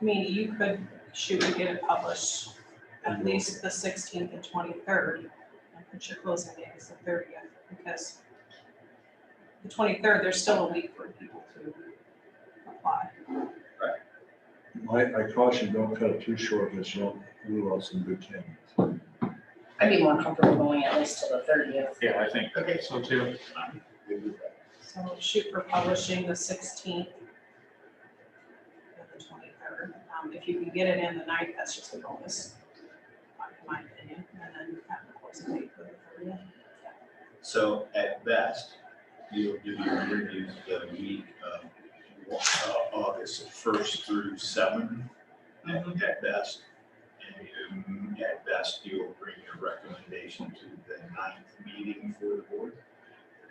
I mean, you could shoot and get it published at least the sixteenth and twenty-third. And put your closing date as the thirtieth, because the twenty-third, there's still a week for people to apply. I, I caution, don't cut it too short, because you'll rule out some good candidates. I'd be more comfortable going at least till the thirtieth. Yeah, I think Okay. so too. So shoot for publishing the sixteenth and the twenty-third. Um, if you can get it in the night, that's just a bonus, in my opinion, and then have the closing date for the thirtieth. So at best, you'll do your interviews the week of uh, August first through seventh, at Mm-hmm. at best. And you- at best, you'll bring your recommendation to the ninth meeting for the board.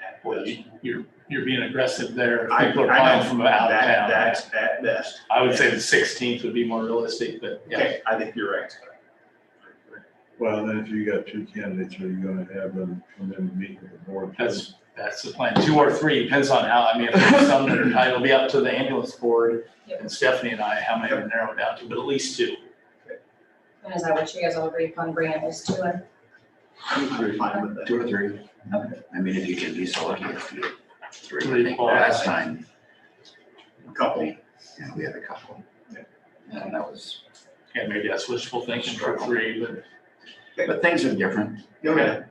At Boy, best. you- you're, you're being aggressive there. If I- People are I applying know. from out of That- town. That's at best. I would say the sixteenth would be more realistic, but yeah. Okay, I think you're right. Well, then if you got two candidates, are you gonna have them come in and meet with the board? That's, that's the plan. Two or three, depends on how, I mean, if there's some that are, it'll be up to the ambulance board and Stephanie and I, how many to narrow it down to, but at least two. And is that what you guys all agree upon bringing at least two in? I'm fine with that. Two or three. I mean, if you can be so lucky as to get three, Three I think qualified. last time, Couple, you know, we had a couple. And that was, And maybe that's wishful thinking for three, but but things are different. okay.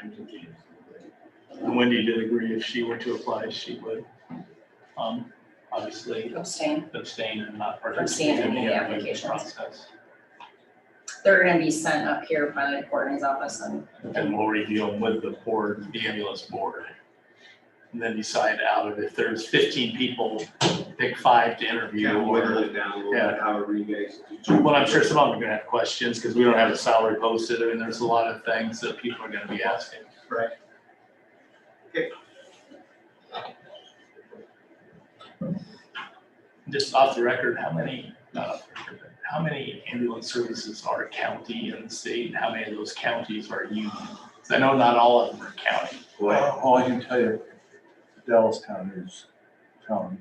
Thank you, James. Wendy did agree if she were to apply, she would, um, obviously Abstain. abstain and not Abstain participate in in the the application applications. process. They're gonna be sent up here by the coordinator's office and And we'll review them with the board, the ambulance board. And then decide out of if there's fifteen people, pick five to interview. Yeah, or- whittle it down a little Yeah. bit, however you guys. Well, I'm sure some of them are gonna have questions, because we don't have a salary posted, I mean, there's a lot of things that people are gonna be asking. Right. Okay. Just off the record, how many, not off the record, but how many ambulance services are county in the state, and how many of those counties are union? 'Cause I know not all of them are county. Well, all I can tell you, Dallas County is county.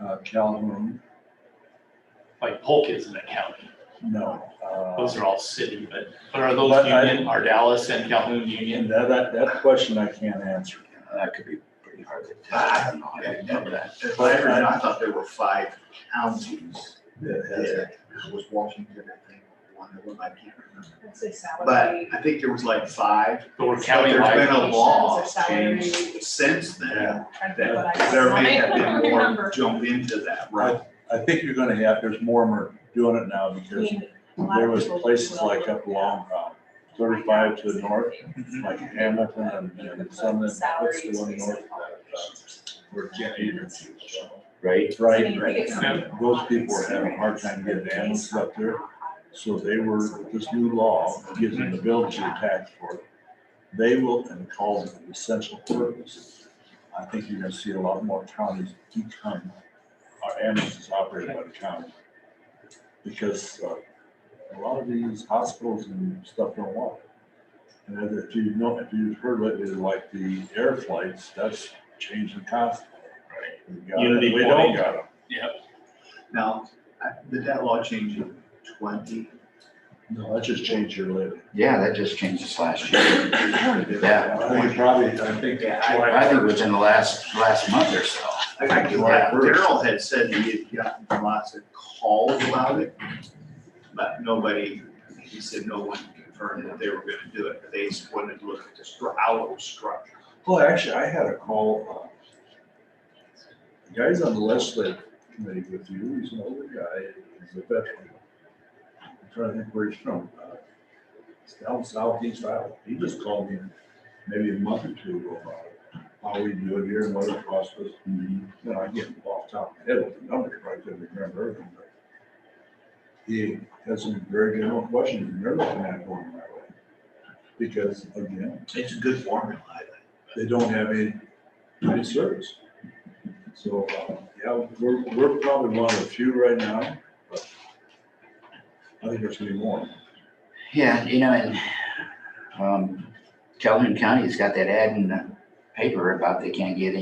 Uh, Calhoun, Like Polk isn't a county, no. Uh, those are all city, but, but are those But I- union, are Dallas and Calhoun union? And that, that, that question I can't answer. Uh, That could be pretty hard to tell. I don't know. I didn't remember that. If I ever, I thought there were five counties. It has- There was Washington, I think, one of them, I can't remember. I'd say But salary. I think there was like five. But we're But county there's been a County-wide. law Or salary. change since then. trying to think what That I there want. may I have don't been more remember. jump into that, right? Right. I think you're gonna have, there's more and more doing it now I because mean, a lot there of was people places will like up look along, uh, thirty-five to the north, Mm-hmm. like Hamilton and- and some of them, what's the Salaries. one north? Where Kent Eater. Right? Right, right. Yeah. Those people are having a hard time getting animals up there, so they were, this new law gives them the ability to tax for it. They will, and calls it an essential purpose. I think you're gonna see a lot more counties become, our ambulances operated by the county. Because uh, a lot of these hospitals and stuff don't want it. And if you know, if you've heard lately, like the air flights, that's changing constantly. Right. We got it, Unity We don't point. got them. Now, I- did that law change in twenty? No, that just changed your living. Yeah, that just changed this last year. Yeah. I think probably, I think. Yeah, I think within the last, last month or so. I think Yeah. July first. Daryl had said he had gotten lots of calls about it, but nobody, he said no one confirmed that they were gonna do it, but they just wanted to look at the stru- hour structure. Well, Oh, actually, I had a call, uh, guys on the legislative committee with you, he's an older guy, he's a veteran. I'm trying to think where he's from. Uh, It's down southeast Iowa. He just called me maybe a month or two ago about it. How we do it here and what it costs us. You know, I get off the top of my head with the numbers, but I couldn't remember everything. but He has some very general questions, and they're looking at going that way. Because again, It's a good formula, I think. they don't have any, any service. So, uh, yeah, we're, we're probably one of the few right now, but I think there's gonna be more. Yeah, you know, and, um, Calhoun County's got that ad in the paper about they can't get